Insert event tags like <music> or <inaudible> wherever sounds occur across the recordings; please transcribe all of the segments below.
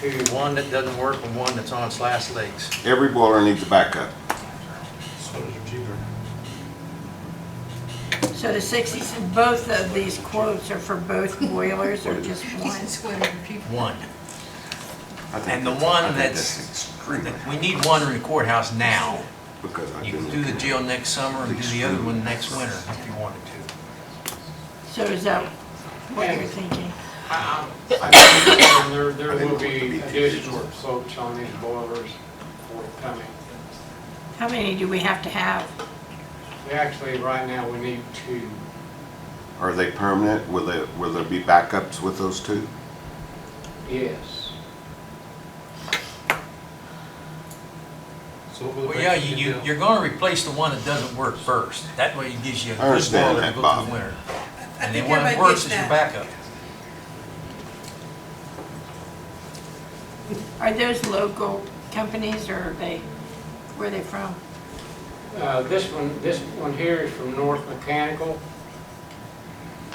to one that doesn't work and one that's on its last legs. Every boiler needs a backup. So the sixty, both of these quotes are for both boilers or just one? One. I think And the that's- I one think that's, extremely we need one in the courthouse now. Because I You can didn't. do the jail next summer and do the other one next winter if you wanted to. So is that what you're thinking? And there, I there think will it would be be- additional soaks on these boilers forthcoming. How many do we have to have? We Actually, right now, we need two. Are they permanent? Will there, will there be backups with those two? Yes. Well, yeah, you, you- you're gonna replace the one that doesn't work first. That way it gives you a I good understand boiler to that, go Bob. through the winter. I And think then one that everybody works gets is your that. backup. Are those local companies or are they, where are they from? Uh, This one, this one here is from North Mechanical.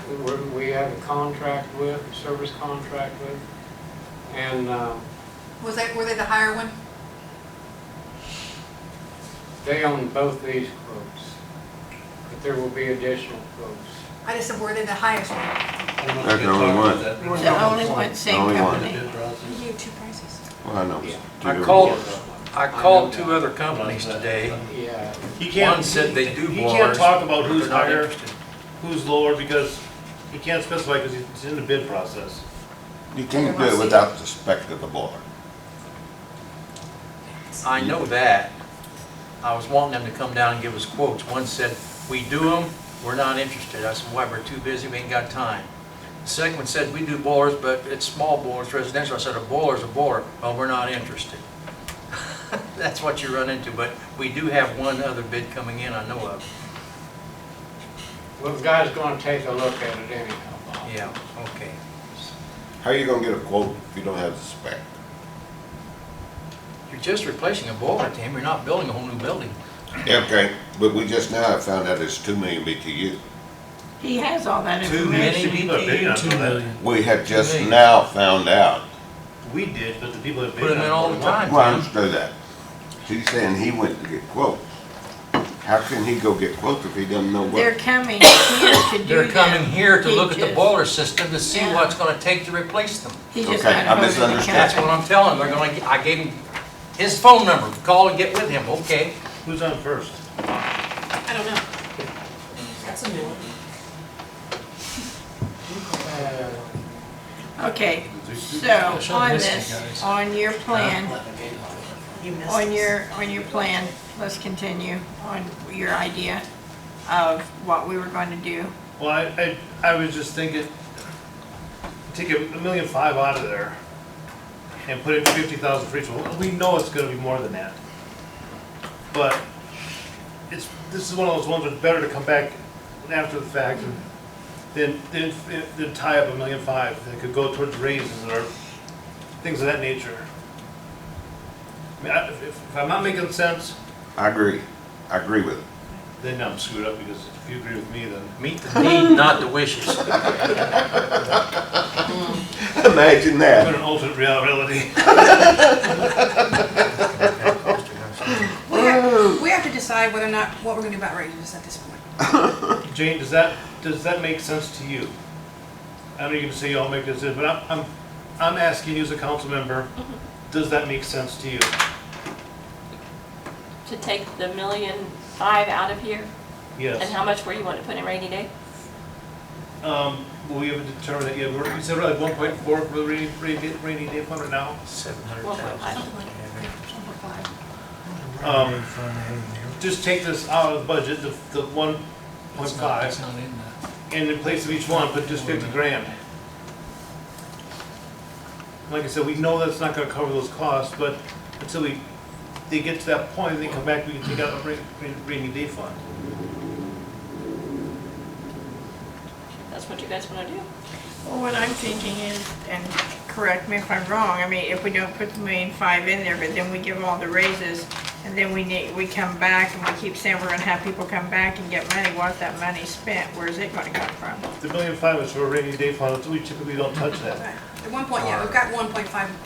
We- We have a contract with, a service contract with, and uh, Was that, were they the higher one? they own both these quotes. But there will be additional quotes. I just said, were they the highest one? That's the only one. The only one, same Only one. company? You gave two prices. Well, I know. it's two I different called, ones. I called two other companies today. Yeah. He can't. One said they do boilers. He can't talk about but who's they're not higher, interested. who's lower, because he can't specify, because it's in the bid process. You can't do it without the spec of the boiler. I know that. I was wanting them to come down and give us quotes. One said, we do them, we're not interested. I said, why, we're too busy, we ain't got time. The second one said, we do boilers, but it's small boilers, residential. I said, a boiler's a boiler, well, we're not interested. <laughs> That's what you run into, but we do have one other bid coming in I know of. Well, the guy's going to take a look at it anyhow. Bob. Yeah, okay. How are you gonna get a quote if you don't have the spec? You're just replacing a boiler, Tim, you're not building a whole new building. Yeah, okay, but we just now have found out it's two million BTU. He has all that Too information. many Actually, people have bid BTU, on that. We have just million. now found out. We did, but the people that bid Put 'em on in it all the were time. wrong. Well, I understand that. She's saying he went to get quotes. How can he go get quotes if he doesn't know They're what? coming here to do that. They're coming here to look at the He boiler system to see Yeah. what's gonna take to replace them. just- He just Okay, got I hold of the misunderstood. That's company. what I'm telling, they're gonna, I gave him his phone number, call and get with him, okay? Who's on first? I don't know. That's a new one. Uh, Okay, so on this, on your plan, on your, on your plan, let's continue on your idea of what we were going to do. Well, I, I, I was just thinking, take a a million five out of there and put in fifty thousand for each one. We know it's gonna be more than that. But it's, this is one of those ones that's better to come back after the fact than, than, than tie up a million five that could go towards raises or things of that nature. I mean, I- if, if I'm not making sense, I agree. I agree with it. then I'm screwed up because if you agree with me, then Meet the need, not the <laughs> wishes. <laughs> Imagine I'm in that. an alternate reality. <laughs> We have, we have to decide whether or not, what we're gonna do about raises at this point. Jane, does that, does that make sense to you? I know you can say you all make this, but I'm, I'm, I'm asking you as a council member, does that make sense to you? to take the million five out of here? And Yes. how much were you wanting to put in rainy day? Um, well, we haven't determined that yet. We're, we said like one point four for the rainy, rainy, rainy day fund right now. Seven hundred One point thousand. five. Um, just take this out of the budget, the, the one point five, not in there. and in place of each one, put just fifty grand. Like I said, we know that's not gonna cover those costs, but until we, they get to that point, they come back, we can take out a rainy, rainy day fund. That's what you guys want to do? Well, what I'm thinking is, and correct me if I'm wrong, I mean, if we don't put the million five in there, but then we give all the raises, and then we need, we come back and we keep saying we're gonna have people come back and get money, what's that money spent, where's it gonna come from? The million five is for a rainy day fund, so we typically don't touch that. At one point, yeah, we've got one point five